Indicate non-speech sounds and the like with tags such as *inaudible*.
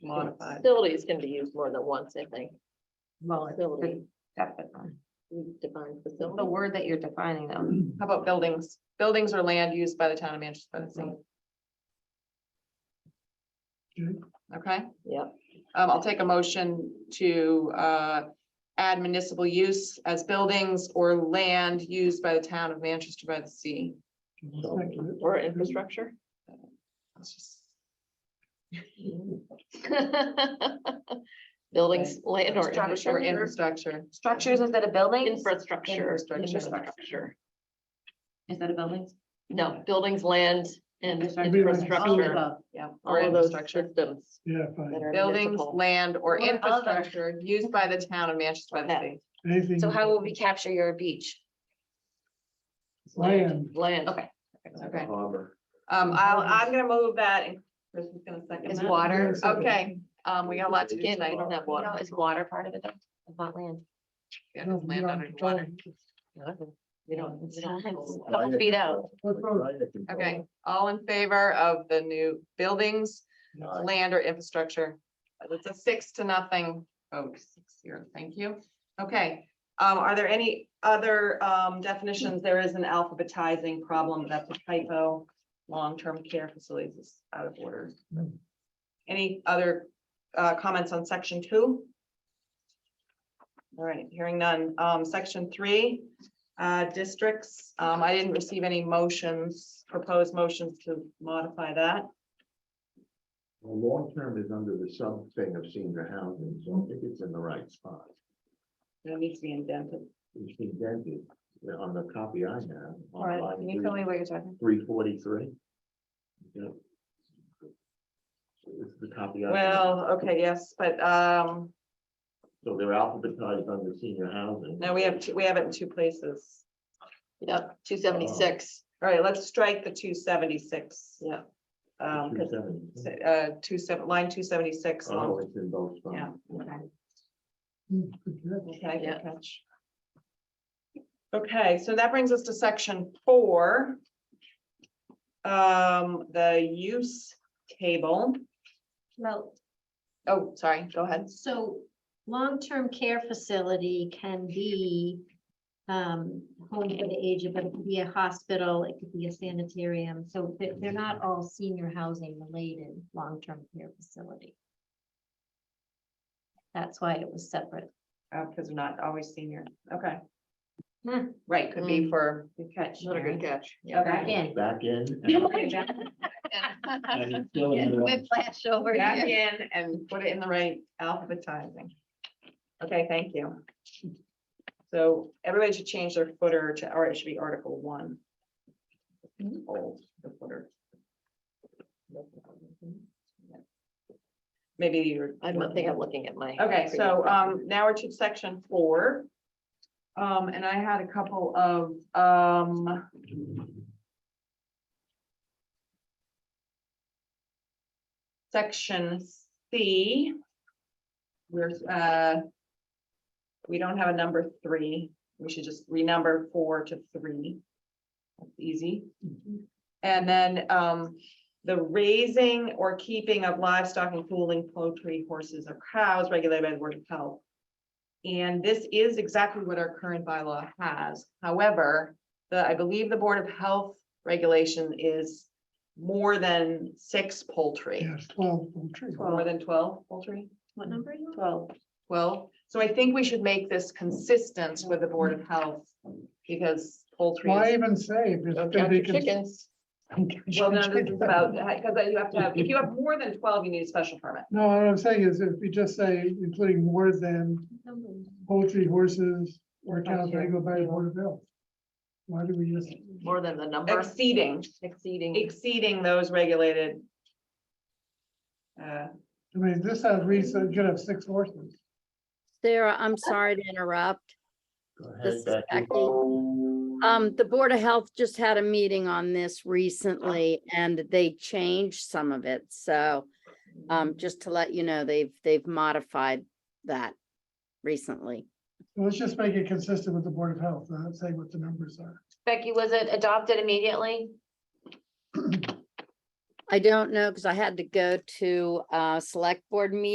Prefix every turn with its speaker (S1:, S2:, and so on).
S1: modified.
S2: Facilities can be used more than once, I think.
S3: Well, it-
S2: Facility,
S3: definitely.
S2: we define
S3: The
S2: facility.
S3: word that you're defining though.
S1: How about buildings? Buildings or land used by the town of Manchester by the sea. Okay,
S2: Yep,
S1: um, I'll take a motion to, uh, add municipal use as buildings or land used by the town of Manchester by the sea.
S2: or infrastructure. *laughs*
S1: Let's just-
S2: Buildings, land or
S1: Or
S2: infrastructure.
S1: infrastructure.
S3: Structures instead of buildings,
S2: Infrastructure.
S1: Infrastructure.
S2: Infrastructure.
S3: instead of buildings.
S2: No, buildings, land and
S4: Infrastructure. All of
S2: infrastructure.
S1: Yeah.
S2: All
S1: Or
S2: of those
S1: infrastructure.
S2: systems
S4: Yeah,
S2: that
S4: fine.
S2: are
S1: Buildings,
S2: municipal.
S1: land or
S3: Or other.
S1: infrastructure used by the town of Manchester by the
S2: Okay.
S1: sea.
S4: Anything.
S3: So how will we capture your beach?
S4: Land.
S2: Land.
S3: Okay.
S1: Okay.
S5: Harbor.
S1: Um, I'll, I'm gonna move that and Chris is gonna second
S3: Is
S1: that.
S3: water,
S4: Yes.
S1: Okay, um, we got a lot to do
S2: Again, I
S1: tonight.
S2: don't have
S3: you know,
S2: water.
S3: is water part of it though? About land.
S1: Yeah, just land under the water.
S2: You don't. you don't-
S3: Couple feet out.
S1: Okay, all in favor of the new buildings, land or infrastructure? It's a six to nothing vote, six zero, thank you. Okay, um, are there any other,
S3: uh?
S1: um, definitions? There is an alphabetizing problem, that's a typo. Long-term care facilities is out of order. Any other, uh, comments on section two? All right, hearing none. Um, section three, uh, districts, um, I didn't receive any motions, proposed motions to modify that.
S5: Long term is under the sub thing of senior housing, so I think it's in the right spot.
S1: It needs to be indented.
S5: It's indented uh, on the copy I have.
S3: All right, can you tell me what you're talking?
S5: Three forty-three. It's the copy. I have.
S1: Well, okay, yes, but, um,
S5: So they're alphabetized under senior housing.
S1: no, we have, two- we have it in two places.
S2: Yep, two seventy-six.
S1: All right, let's strike the two seventy-six.
S2: Yeah.
S1: Um, 'cause,
S5: 270.
S1: uh, two seven, line two seventy-six.
S5: Oh,
S1: Okay,
S5: it's in both spots.
S1: Yeah,
S4: Good
S2: Yeah.
S1: good catch. Okay, so that brings us to section four. Um, the use table.
S6: Well,
S1: Oh, sorry, go ahead.
S6: so long-term care facility can be um, home for the aged, but it could be a hospital, it could be a sanitarium. So they're, they're not all senior housing related, long-term care facility. That's why it was separate.
S1: Uh, because we're not always senior, okay.
S6: Hmm.
S1: Right, could be
S2: Hmm.
S1: for. Good catch.
S2: Not a good catch. Yeah.
S1: Okay.
S6: Again.
S5: Back in. and- and it's still in the-
S6: Whiplash over
S1: Back
S6: here.
S1: in and put it in the right alphabetizing. Okay, thank you. So everybody should change their footer to, or it should be article one. Old, the footer. Maybe you're.
S2: I don't think *laughs* I'm looking at my.
S1: Okay, so um, now we're to section four. Um, and I had a couple of um. Section C. We're uh. We don't have a number three. We should just renumber four to three. That's easy. And then um, the raising or keeping of livestock including poultry, horses or cows regulated by the Board of Health. And this is exactly what our current bylaw has. However, the, I believe the Board of Health regulation is more than six poultry,
S4: Yes, twelve, tree.
S1: more than twelve poultry,
S6: What number are you? on?
S1: twelve. Well, so I think we should make this consistent with the Board of Health because poultry
S4: Why
S1: is.
S4: even say? if it's-
S2: Don't
S4: if
S2: count
S4: they
S2: your
S4: can-
S2: chickens.
S1: Well, no, this is about, because you have to have, if you have more than twelve, you need a special permit.
S4: No, what I'm saying is if we just say including more than poultry, horses, or cows, they go by the board of health. Why do we just?
S2: More than the number
S1: Exceeding.
S2: exceeding.
S1: exceeding those regulated. Uh,
S4: I mean, this has reason, you could have six horses.
S7: Sarah, I'm sorry to interrupt.
S5: Go
S7: This is
S5: ahead, Becky.
S7: Becky. Um, the Board of Health just had a meeting on this recently and they changed some of it, so um, just to let you know, they've, they've modified that recently.
S4: Well, Let's just make it consistent with the board of health, not say what the numbers are.
S3: Becky, was it adopted immediately?
S7: I don't know, because I had to go to a uh, select board meeting